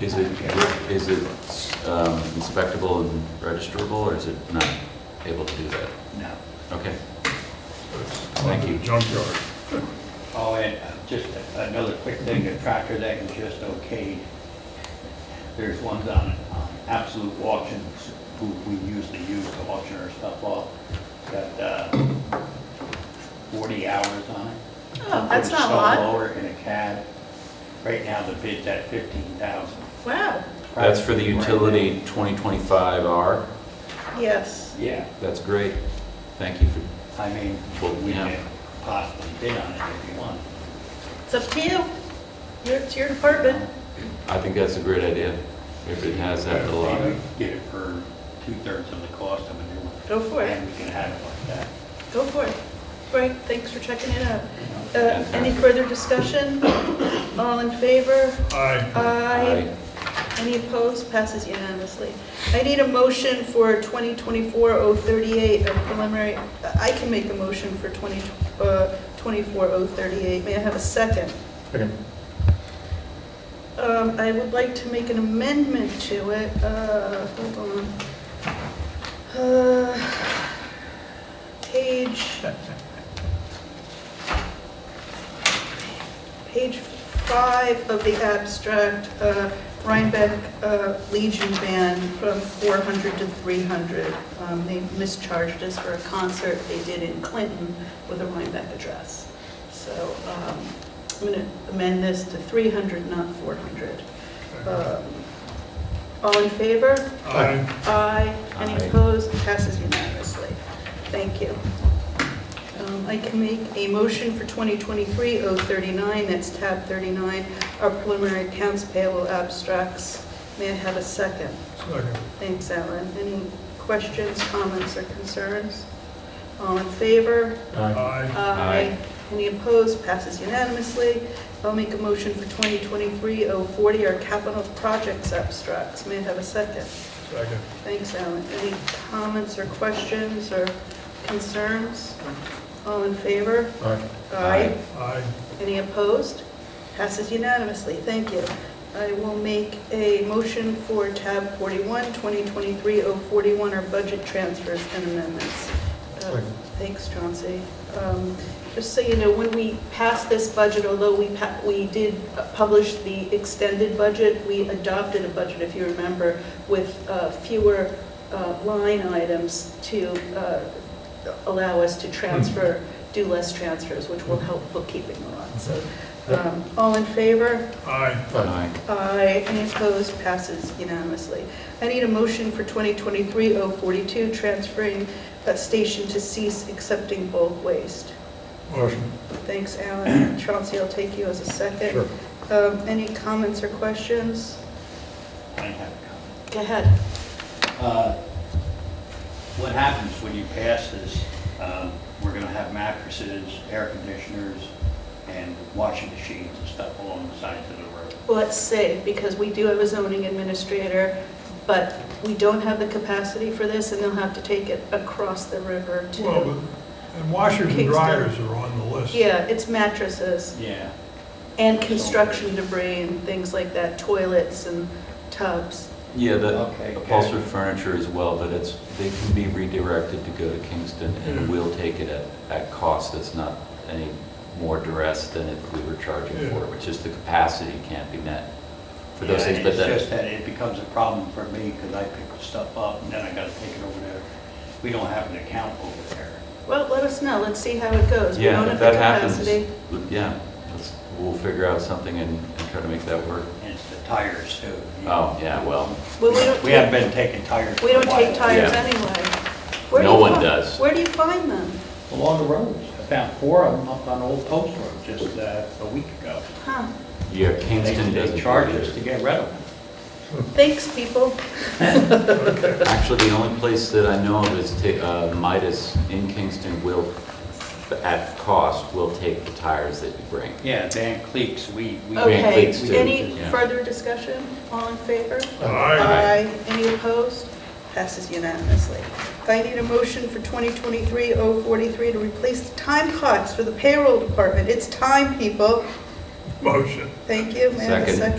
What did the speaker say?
Is it, is it um, inspectable and registerable, or is it not able to do that? No. Okay, Thank Thank you. you. Junkyard. Oh, and uh, just another quick thing, a tractor that is just okayed. There's ones on on Absolute Auctions, who we usually use to auction our stuff off, got uh, 40 hours on it. Oh, that's Put a not a lot. snowblower and a cab. Right now, the bid's at 15,000. Wow, that's for the Right now. utility 2025R, yes. Yeah, that's great, thank you for, I mean, Well, we yeah. can possibly bid on it if you want. It's up to you. Your- It's your Um, department. I think that's a great idea, if it has that little, Maybe uh, Get it for two-thirds of the cost of a new one. Go for it. And we can have it like that. Go for it. Great, thanks for checking it out. Uh, Any further discussion? All in favor? Aye. Aye. I- Any opposed? Passes unanimously. I need a motion for 2024-038, a preliminary, I can make a motion for uh, 2024-038. May I have a second? Second. Um, I would like to make an amendment to it, uh, hold on. Uh, Page... Page five of the abstract, uh, Rhinebeck uh, Legion Band from 400 to 300. Um, They mischarged us for a concert they did in Clinton with a Rhinebeck address. So um, I'm going to amend this to 300, not 400. Um, All in favor? Aye. Aye. Any Aye. opposed? Passes unanimously. Thank you. Um, I can make a motion for 2023-039, that's tab 39, our preliminary accounts payable abstracts. May I have a second? Second. Thanks, Alan. Any questions, comments, or concerns? All in favor? Aye. Aye. Any opposed? Passes unanimously. I'll make a motion for 2023-040, our capital projects abstracts. May I have a second? Second. Thanks, Alan. Any comments or questions or concerns? All in favor? Aye. Aye. Aye. Any opposed? Passes unanimously. Thank you. I will make a motion for tab 41, 2023-041, our budget transfers and amendments. Uh, Second. Thanks, Chauncey. Um, Just so you know, when we passed this budget, although we, pa- we did uh, publish the extended budget, we adopted a budget, if you remember, with uh, fewer uh, line items to uh, allow us to transfer, do less transfers, which will help bookkeeping a lot. So, um, all in favor? Aye. Aye. Aye. Any opposed? Passes unanimously. I need a motion for 2023-042, transferring uh, station to cease accepting bulk waste. Motion. Thanks, Alan. Chauncey, I'll take you as a second. Sure. Um, Any comments or questions? I have a comment. Go ahead. Uh, What happens when you pass this, um, we're gonna have mattresses, air conditioners, and washing machines and stuff along the sides of the road. Well, Let's see, because we do have a zoning administrator, but we don't have the capacity for this, and they'll have to take it across the river Well, to... but, and washers and Kingston. dryers are on the list. Yeah, it's mattresses Yeah. and construction debris and things like that, toilets and tubs. Yeah, Okay, the okay. upholstered furniture as well, but it's, they can be redirected to go to Kingston, Yeah. and Mm-hmm. we'll take it at, at cost that's not any more duress than if we were charging for it, Yeah. which is the capacity can't be met for those Yeah, things, and but It's that, just that it becomes a problem for me, because I pick the stuff up, and then I gotta take it over there. We don't have an account over there. Well, let us know, let's see how it goes. We yeah, don't if have that the happens, capacity. yeah, let's, we'll figure out something and, and try to make that work. And it's the tires too. Oh, yeah, well, Well, we don't We haven't take, been taking tires. we don't for a while. take tires Yeah. anyway. Where do No you one fi- does. Where do you find them? Along the roads. I found four of them up on Old Post Road just uh, a week ago. Huh, yeah, They Kingston doesn't. they charge us to get rid of them. thanks, people. Actually, the only place that I know of is ta- uh, Midas in Kingston will, at cost, will take the tires that you bring. Yeah, Dan Cleeks, we, we. Van Okay, Cleats too, any yeah. further discussion? All in favor? Aye. Any opposed? Passes unanimously. I need a motion for 2023-043 to replace the time clocks for the payroll department. It's time, people. Motion. Thank you. May I have a Second. second?